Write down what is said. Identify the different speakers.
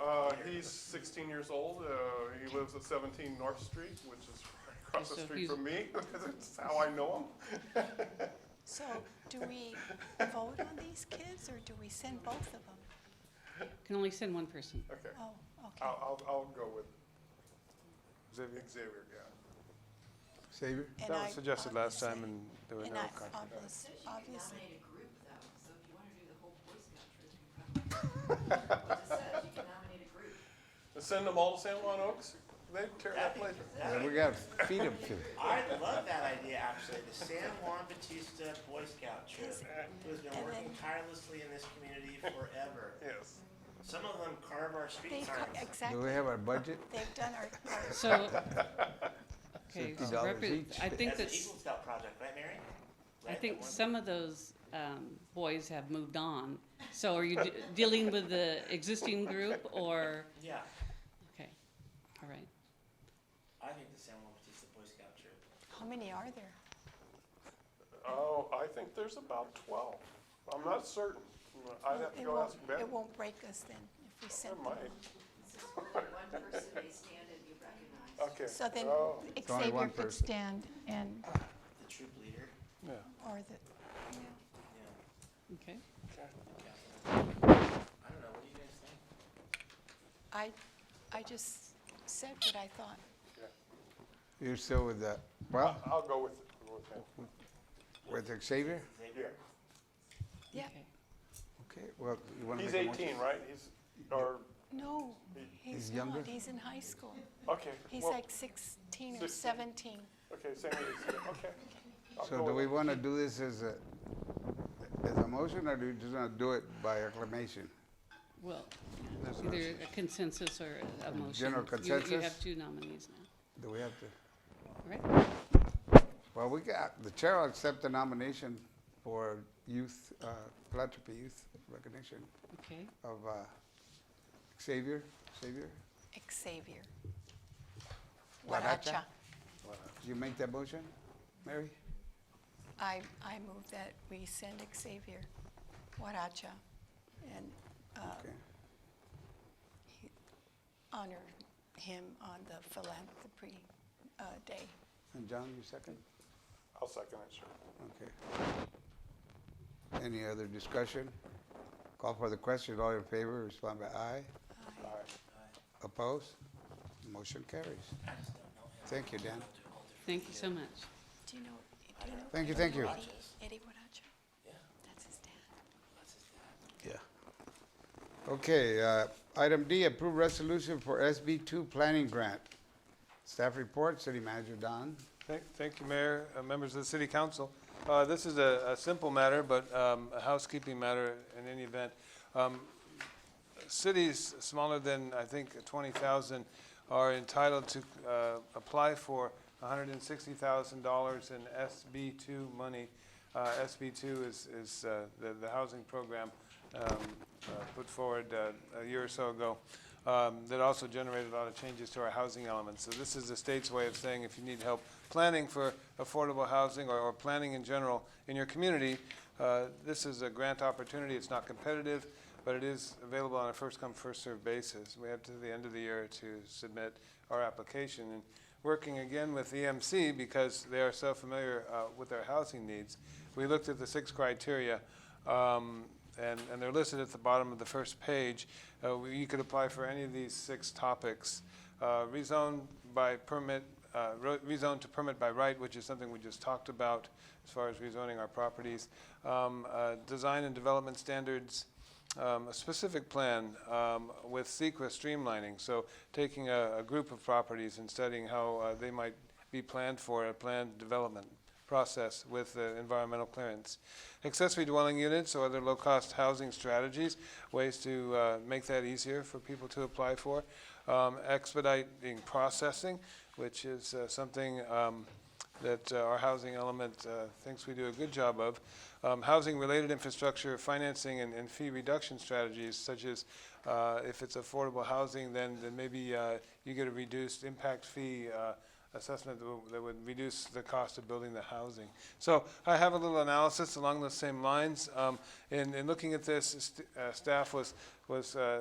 Speaker 1: Uh, he's sixteen years old, uh, he lives at seventeen North Street, which is right across the
Speaker 2: So
Speaker 1: street
Speaker 2: he's-
Speaker 1: from me, that's how I know him.
Speaker 3: So do we vote on these kids or do we send both of them?
Speaker 2: Can only send one person.
Speaker 1: Okay,
Speaker 3: Oh, okay.
Speaker 1: I'll, I'll, I'll go with
Speaker 4: Xavier,
Speaker 1: Xavier, yeah.
Speaker 4: Xavier,
Speaker 3: And
Speaker 4: that
Speaker 3: I
Speaker 4: was suggested last time
Speaker 3: obviously-
Speaker 4: and there were
Speaker 3: And
Speaker 4: no
Speaker 3: I
Speaker 4: contracts.
Speaker 3: obviously,
Speaker 5: Says you can
Speaker 3: obviously,
Speaker 5: nominate a group though, so if you wanna do the whole Boy Scout troop, you probably. It just says you can nominate a group.
Speaker 1: Send them all to San Juan Oaks, they tear that place.
Speaker 4: And we gotta feed him too.
Speaker 6: I love that idea, actually, the San Juan Batista Boy Scout troop, who's been working tirelessly in this community forever.
Speaker 1: Yes,
Speaker 6: Some of them carve our street
Speaker 3: they've,
Speaker 6: signs.
Speaker 3: got-
Speaker 4: Do
Speaker 3: exactly,
Speaker 4: we have our budget?
Speaker 3: they've done our, our-
Speaker 2: So, okay,
Speaker 4: $50
Speaker 2: so repre-
Speaker 4: each.
Speaker 2: I think
Speaker 6: That's an
Speaker 2: that's,
Speaker 6: Eagle Scout project, right, Mary?
Speaker 2: I
Speaker 6: Right, the
Speaker 2: think
Speaker 6: one-
Speaker 2: some of those um, boys have moved on. So are you de- dealing with the existing group or,
Speaker 6: Yeah,
Speaker 2: okay, all right.
Speaker 6: I think the San Juan Batista Boy Scout troop.
Speaker 3: how many are there?
Speaker 1: oh, I think there's about twelve, I'm not certain, I'd have to
Speaker 3: It
Speaker 1: go
Speaker 3: won't-
Speaker 1: ask Ben.
Speaker 3: It won't break us then if we send
Speaker 1: It
Speaker 3: them.
Speaker 1: might,
Speaker 5: This is where one person may stand and be recognized.
Speaker 1: okay.
Speaker 3: So then
Speaker 1: Oh,
Speaker 4: only
Speaker 3: Xavier
Speaker 4: one
Speaker 3: could
Speaker 4: person.
Speaker 3: stand and,
Speaker 6: The troop leader,
Speaker 4: Yeah.
Speaker 3: or the,
Speaker 6: yeah.
Speaker 2: Okay,
Speaker 6: yeah. I don't know, what do you guys think?
Speaker 3: I, I just said what I thought.
Speaker 4: You're still with the, well,
Speaker 1: I'll go with, with him.
Speaker 4: with Xavier?
Speaker 6: Xavier?
Speaker 3: Yeah,
Speaker 2: okay.
Speaker 4: Okay, well, you wanna make
Speaker 1: He's
Speaker 4: a motion?
Speaker 1: eighteen, right? He's, or,
Speaker 3: no,
Speaker 4: He's
Speaker 3: he's
Speaker 4: younger?
Speaker 3: not, he's in high school.
Speaker 1: okay.
Speaker 3: He's
Speaker 1: well,
Speaker 3: like sixteen or
Speaker 1: 16.
Speaker 3: seventeen.
Speaker 1: Okay, same as, okay. I'll go
Speaker 4: So do
Speaker 1: with
Speaker 4: we
Speaker 1: him.
Speaker 4: wanna do this as a, as a motion or do we just wanna do it by acclamation?
Speaker 2: Well,
Speaker 4: That's what I
Speaker 2: either a consensus or a- a motion.
Speaker 4: general
Speaker 2: You- You
Speaker 4: consensus?
Speaker 2: have two nominees now,
Speaker 4: Do we have to?
Speaker 2: all right?
Speaker 4: Well, we got, the chair will accept the nomination for youth, uh, philanthropy youth recognition
Speaker 2: Okay,
Speaker 4: of, uh, Xavier, Xavier?
Speaker 3: Xavier.
Speaker 4: Huaracha.
Speaker 3: Huaracha.
Speaker 4: Do you make that motion, Mary?
Speaker 3: I, I move that we send Xavier Huaracha and uh,
Speaker 4: Okay.
Speaker 3: he- honor him on the philanthropy uh, day.
Speaker 4: And John, you second?
Speaker 1: I'll second it, sure.
Speaker 4: Okay. Any other discussion? Call for the question, all in favor, respond by aye.
Speaker 1: All right.
Speaker 4: Opposed? Motion carries. Thank you, Dan.
Speaker 2: thank you so much.
Speaker 3: Do you know, do you know?
Speaker 4: Thank you, thank you.
Speaker 3: Eddie- Eddie Huaracha?
Speaker 6: Yeah.
Speaker 3: That's his dad.
Speaker 4: Yeah. Okay, uh, item D, approve resolution for SB two planning grant. Staff report, City Manager Don.
Speaker 7: Thank thank you, Mayor, uh, members of the city council. Uh, This is a a simple matter, but um, a housekeeping matter in any event. Um, Cities smaller than, I think, 20,000 are entitled to uh, apply for $160,000 in SB2 money. Uh, SB2 is is, uh, the the housing program um, uh, put forward uh, a year or so ago um, that also generated a lot of changes to our housing element. So this is the state's way of saying if you need help planning for affordable housing or, or planning in general in your community, uh, this is a grant opportunity. It's not competitive, but it is available on a first-come, first-served basis. We have to the end of the year to submit our application. And working again with EMC because they are so familiar uh, with our housing needs, we looked at the six criteria. Um, and, and they're listed at the bottom of the first page. Uh, we- you could apply for any of these six topics. Uh, rezone by permit, uh, ro- rezone to permit by right, which is something we just talked about as far as rezoning our properties. Um, uh, design and development standards, um, a specific plan um, with CEQA streamlining. So taking a, a group of properties and studying how uh, they might be planned for a planned development process with uh, environmental clearance. Accessory dwelling units or other low-cost housing strategies, ways to uh, make that easier for people to apply for. Um, Expediting processing, which is uh, something um, that uh, our housing element uh, thinks we do a good job of. Um, Housing-related infrastructure, financing, and- and fee reduction strategies, such as uh, if it's affordable housing, then then maybe uh, you get a reduced impact fee uh, assessment that would- that would reduce the cost of building the housing. So I have a little analysis along those same lines. Um, In in looking at this, st- uh, staff was was uh,